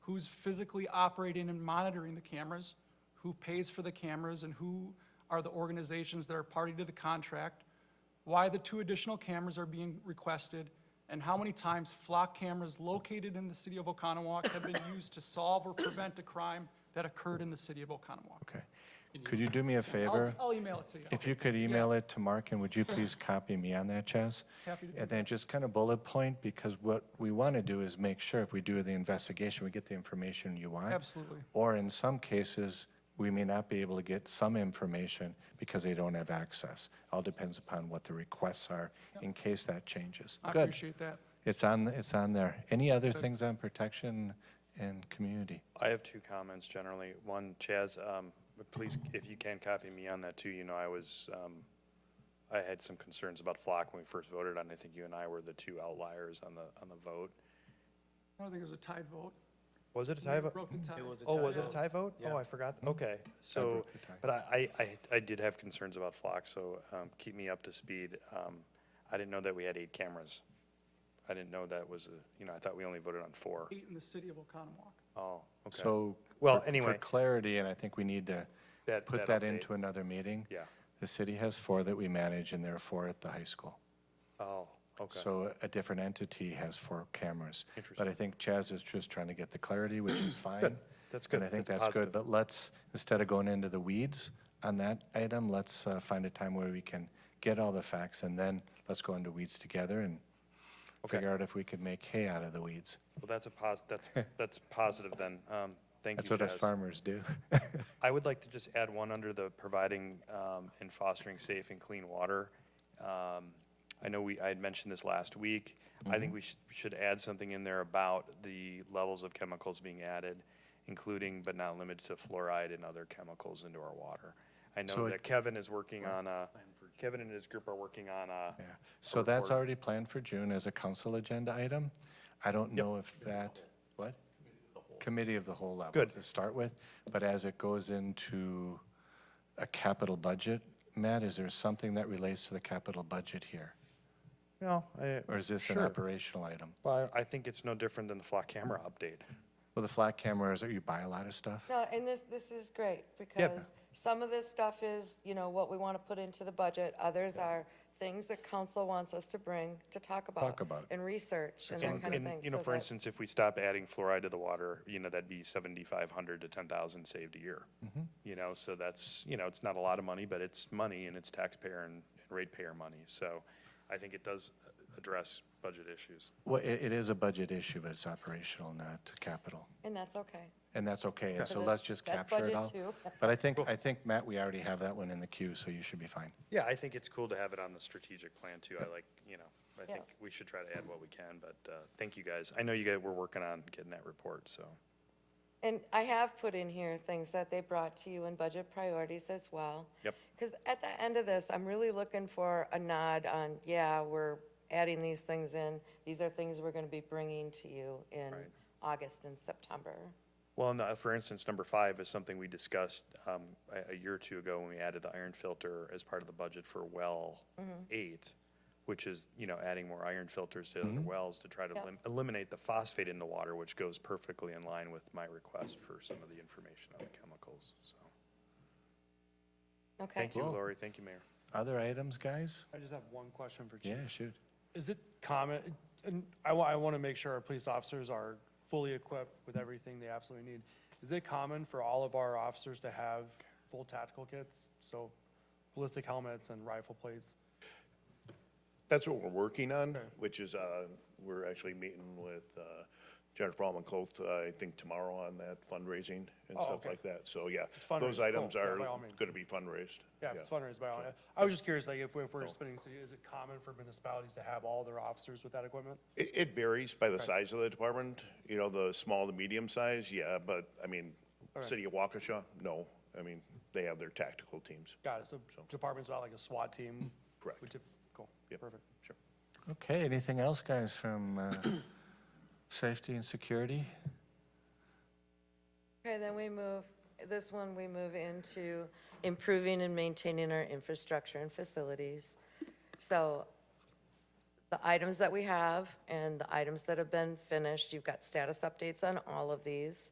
who's physically operating and monitoring the cameras, who pays for the cameras, and who are the organizations that are party to the contract, why the two additional cameras are being requested, and how many times flock cameras located in the city of Oconomowoc have been used to solve or prevent a crime that occurred in the city of Oconomowoc. Okay. Could you do me a favor? I'll, oh, I'll email it to you. If you could email it to Mark, and would you please copy me on that, Chaz? Happy to do And then just kind of bullet point, because what we want to do is make sure if we do the investigation, we get the information you want. Absolutely. Or in some cases, we may not be able to get some information because they don't have access. All depends upon what the requests are, in case that changes. I Good. appreciate that. It's on, it's on there. Any other things on protection and community? I have two comments generally. One, Chaz, um, please, if you can copy me on that too, you know, I was, um, I had some concerns about flock when we first voted on, it. I think you and I were the two outliers on the, on the vote. I don't think it was a tied vote. Was it a tie vote? Broke the tie. Oh, was it a tie vote? Oh, I forgot. Okay, so, broke the tie. but I, I, I- I did have concerns about flock, so, um, keep me up to speed. Um, I didn't know that we had eight cameras. I didn't know that was, a- you know, I thought we only voted on four. Eight in the city of Oconomowoc. Oh, okay. So. Well, for- For anyway. clarity, and I think we need to That- put that that update. into another meeting. Yeah. The city has four that we manage, and there are four at the high school. Oh, okay. So a different entity has four cameras. But I think Chaz is just trying to get the clarity, which is fine. That's And good. I think That's that's good, positive. but let's, instead of going into the weeds on that item, let's uh, find a time where we can get all the facts, and then let's go into weeds together and Okay. figure out if we could make hay out of the weeds. Well, that's a pos, that's, that's positive then. Um, thank you, That's what us Chaz. farmers do. I would like to just add one under the providing um, and fostering safe and clean water. Um, I know we, I had mentioned this last week. I Mm-hmm. think we should, should add something in there about the levels of chemicals being added, including but not limited to fluoride and other chemicals into our water. I So know it- that Kevin is working on a, Kevin and his group are working on a, Yeah. So that's already planned for June as a council agenda item. I don't know if that, what? Committee of the whole level. Good. To start with, but as it goes into a capital budget, Matt, is there something that relates to the capital budget here? no, I, Or is this an Sure. operational item? well, I think it's no different than the flock camera update. Well, the flat cameras, you buy a lot of stuff? No, and this, this is great, because some of this stuff is, you know, what we want to put into the budget. Others are things that council wants us to bring to talk about. Talk about it. And research and that kind of And, thing. you know, so for that- instance, if we stopped adding fluoride to the water, you know, that'd be seventy-five hundred to ten thousand saved a year. You know, so that's, you know, it's not a lot of money, but it's money and it's taxpayer and and ratepayer money. So I think it does uh, address budget issues. Well, it, it is a budget issue, but it's operational, not capital. And that's okay. And that's okay, and so that's- let's just that's capture it budget all. too. But I think, I think, Matt, we already have that one in the queue, so you should be fine. Yeah, I think it's cool to have it on the strategic plan too. I like, you know, I Yeah. think we should try to add what we can, but, uh, thank you guys. I know you guys were working on getting that report, so. And I have put in here things that they brought to you in budget priorities as well. Yep. Because at the end of this, I'm really looking for a nod on, yeah, we're adding these things in. These are things we're going to be bringing to you in August and September. Well, and the, for instance, number five is something we discussed um, a, a year or two ago when we added the iron filter as part of the budget for well Mm-hmm. eight, which is, you know, adding more iron filters to other wells to try to Yep. elim- eliminate the phosphate in the water, which goes perfectly in line with my request for some of the information on the chemicals. So, Okay. thank you, Lori. Thank you, Mayor. Other items, guys? I just have one question for Chief. Yeah, shoot. Is it common, and I wa, I want to make sure our police officers are fully equipped with everything they absolutely need. Is it common for all of our officers to have full tactical kits? So ballistic helmets and rifle plates? That's what we're working on, which is, uh, we're actually meeting with uh, Jennifer Alman Coth, uh, I think tomorrow on that fundraising and stuff Oh, okay. like that. So, yeah, fundraising, those cool, items yeah, are by all means. going to be fundraised. Yeah, if it's fundraised by all, I was just curious, like, if we- if we're spending, city, is it common for municipalities to have all their officers with that equipment? It, it varies by the size of the department, you know, the small to medium size, yeah, but, I mean, city of Waukesha, no. I mean, they have their tactical teams. Got it, so departments without like a SWAT team? Correct. would typ- Cool, Yep. perfect. Sure. Okay, anything else, guys, from uh, safety and security? Okay, then we move, this one, we move into improving and maintaining our infrastructure and facilities. So the items that we have and the items that have been finished. You've got status updates on all of these.